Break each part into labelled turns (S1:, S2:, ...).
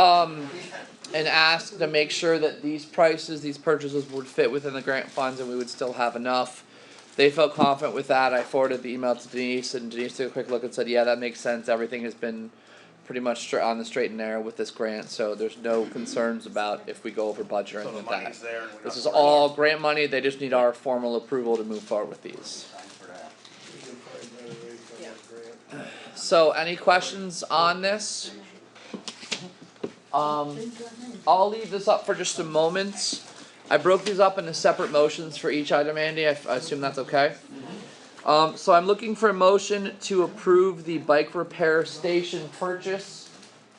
S1: um, and ask to make sure that these prices, these purchases would fit within the grant funds and we would still have enough. They felt confident with that. I forwarded the email to Denise and Denise took a quick look and said, yeah, that makes sense. Everything has been pretty much stra- on the straight and narrow with this grant, so there's no concerns about if we go over budget or
S2: So the
S1: anything like that.
S2: money's there and we're not.
S1: This is
S2: worried.
S1: all grant money, they just need our formal approval to move forward with these.
S3: We can find better ways to
S4: Yeah.
S3: get grant.
S1: So any questions on this? Um, I'll leave this up for just a moment. I broke these up into separate motions for each item, Andy, I f- I assume that's okay? Um, so I'm looking for a motion to approve the bike repair station purchase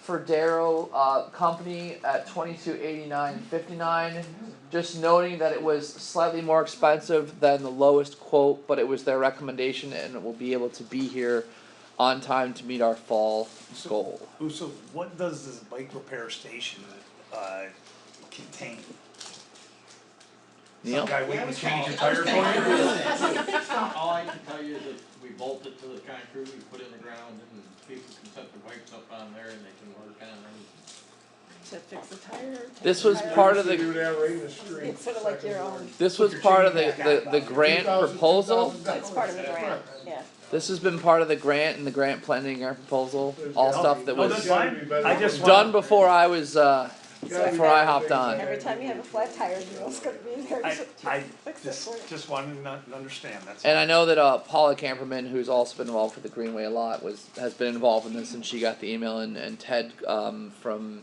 S1: for Darrow, uh, company at twenty-two eighty-nine fifty-nine. Just noting that it was slightly more expensive than the lowest quote, but it was their recommendation and it will be able to be here on time to meet our fall goal.
S2: Ooh, So what does this bike repair station, uh, contain?
S1: Neil?
S2: Guy, we
S5: Yeah,
S2: can
S5: we
S2: change
S5: can.
S2: your tire for you?
S5: All I can tell you is that we bolted to the concrete, we put in the ground, and people can set their bikes up on there and they can work on them.
S4: To fix the tire?
S1: This
S4: take the
S1: was
S4: tire
S1: part
S4: out?
S1: of the-
S3: Do that right in the street.
S4: It's sort of like your own,
S1: This was part of the, the, the grant proposal.
S4: it's part of the grant, yeah.
S1: This has been part of the grant and the grant planning, grant proposal, all stuff that
S2: Oh,
S1: was
S2: that's fine, I just want.
S1: done before I was, uh,
S3: Yeah.
S1: before I hopped on.
S4: Every time you have a flat tire, you know it's gonna be there.
S2: I, I
S4: Fix it
S2: just,
S4: for you.
S2: just wanted to not- understand, that's.
S1: And I know that, uh, Paula Camperman, who's also been involved with the Greenway a lot, was, has been involved in this and she got the email and, and Ted, um, from,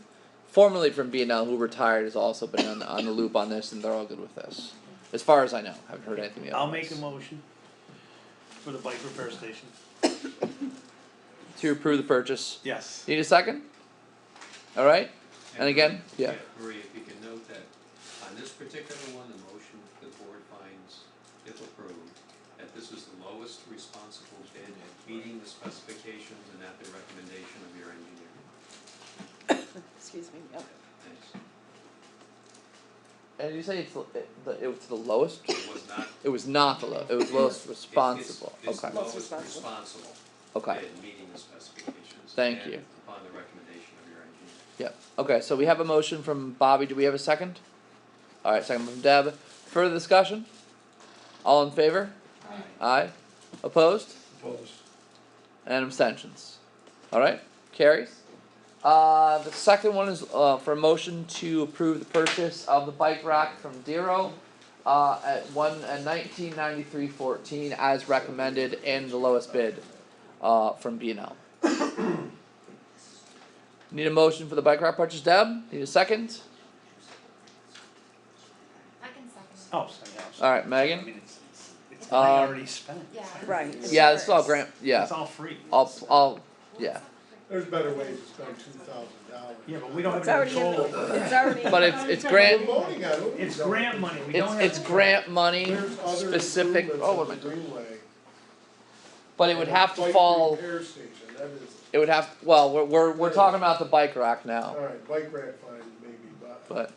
S1: formerly from B and L, who retired, has also been on, on the loop on this and they're all good with this. As far as I know, haven't heard anything
S2: I'll make a
S1: otherwise.
S2: motion for the bike repair station.
S1: To approve the purchase.
S2: Yes.
S1: Need a second? Alright, and again, yeah.
S6: Marie, if you can note that on this particular one, the motion the board finds, if approved, that this is the lowest responsible bid at meeting the specifications and at the recommendation of your engineer.
S4: Excuse me, yep.
S6: Thanks.
S1: And you say it's the, it, the, it was the lowest?
S6: It was not. it-
S1: It was not the low, it was lowest
S6: it's-
S1: responsible,
S6: It's the
S1: okay,
S6: lowest
S4: Lowest
S6: responsible
S1: okay,
S6: bid, meeting the specifications.
S1: Thank
S6: and
S1: you.
S6: Upon the recommendation of your engineer.
S1: yep, okay, so we have a motion from Bobby, do we have a second? Alright, second from Deb, further discussion? All in favor? Aye, opposed? And abstentions. Alright, carries. Uh, the second one is, uh, for a motion to approve the purchase of the bike rack from Dero. Uh, at one, at nineteen ninety-three fourteen as recommended and the lowest bid, uh, from B and L. Need a motion for the bike rack purchase, Deb? Need a second?
S7: I can second
S2: Oh, sorry, yeah, sorry.
S1: Alright,
S2: I
S1: Megan?
S2: mean, it's, it's, it's
S1: Um,
S2: money already spent.
S7: it. Yeah.
S4: Right. it's
S1: Yeah, this is all
S4: yours.
S1: grant, yeah,
S2: It's all free.
S1: I'll, I'll, yeah.
S3: There's better ways to spend two thousand dollars.
S2: Yeah, but we don't
S4: It's
S2: have any
S4: already in,
S2: control. over it.
S4: the- it's already.
S1: But it's, it's grant,
S3: We're voting on it.
S2: It's grant money, we don't
S1: It's
S2: have.
S1: it's
S2: control.
S1: grant money
S3: There's other
S1: specific,
S3: improvements
S1: oh,
S3: on
S1: what am I
S3: the
S1: doing?
S3: Greenway.
S1: But it would have to
S3: Bike
S1: fall,
S3: repair station, that is,
S1: it would have, well, we're we're we're talking about the bike rack now,
S3: alright, bike rack fine maybe, but,
S1: but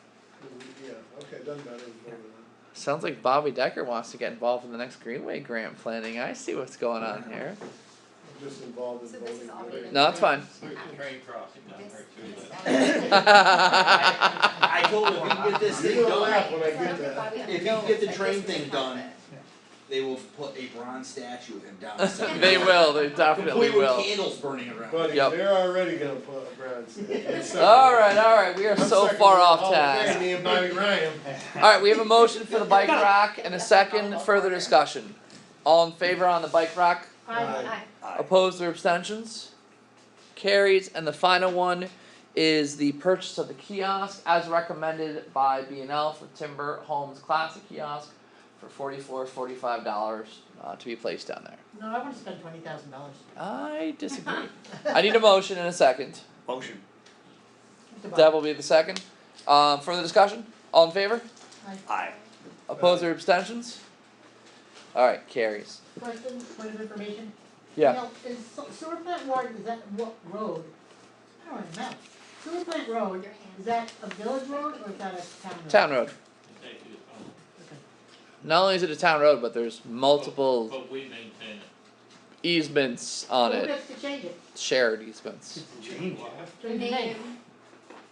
S3: yeah, okay, doesn't matter. we're voting on it.
S1: sounds like Bobby Decker wants to get involved in the next Greenway grant planning, I see what's going on here.
S3: I'm just involved in
S7: So this is all
S3: voting.
S7: been-
S1: No, it's fine.
S5: There's a train crossing down
S7: This-
S5: there too,
S7: this
S5: but-
S7: is-
S5: I told him, we can get this
S3: You're
S5: thing
S3: gonna laugh
S5: done,
S3: when I get that.
S7: Bobby, I'm
S8: If you
S7: no,
S8: get the
S7: like,
S8: train
S7: this is
S8: thing
S7: not
S8: done,
S7: it.
S8: they will put a bronze statue of him down. the center.
S1: They will, they definitely
S8: Complete with
S1: will.
S8: candles burning around.
S3: Buddy,
S1: Yep.
S3: they're already gonna put a bronze.
S1: Alright, alright, we are
S3: I'm
S1: so
S3: second
S1: far
S3: with
S1: off
S3: Hall of Fame,
S1: task.
S3: Me and Bonnie Ryan.
S1: Alright, we have a motion for the bike rack and a second, further discussion. All in favor on the bike rack?
S3: Aye.
S7: Aye.
S1: Opposed or abstentions? Carries, and the final one is the purchase of the kiosk as recommended by B and L for Timber Homes Classic Kiosk for forty-four, forty-five dollars, uh, to be placed down there.
S9: No, I wanna spend twenty thousand dollars.
S1: I disagree. I need a motion and a second.
S2: Motion.
S1: Deb will be the second. Um, further discussion? All in favor?
S2: Aye.
S1: Opposed or abstentions? Alright, carries.
S9: Question, point of information?
S1: Yeah,
S9: Now, is Sewer Plant Road, is that what road? I don't remember. Sewer Plant Road,
S7: Your hand.
S9: is that a village road or is that a town road?
S1: town road.
S5: they do it all.
S1: Not only is it a town road, but there's multiple
S5: But we maintain it.
S1: easements on
S9: Who
S1: it,
S9: gets to change it?
S1: shared easements.
S2: Change it.
S9: Change the name?
S7: Name,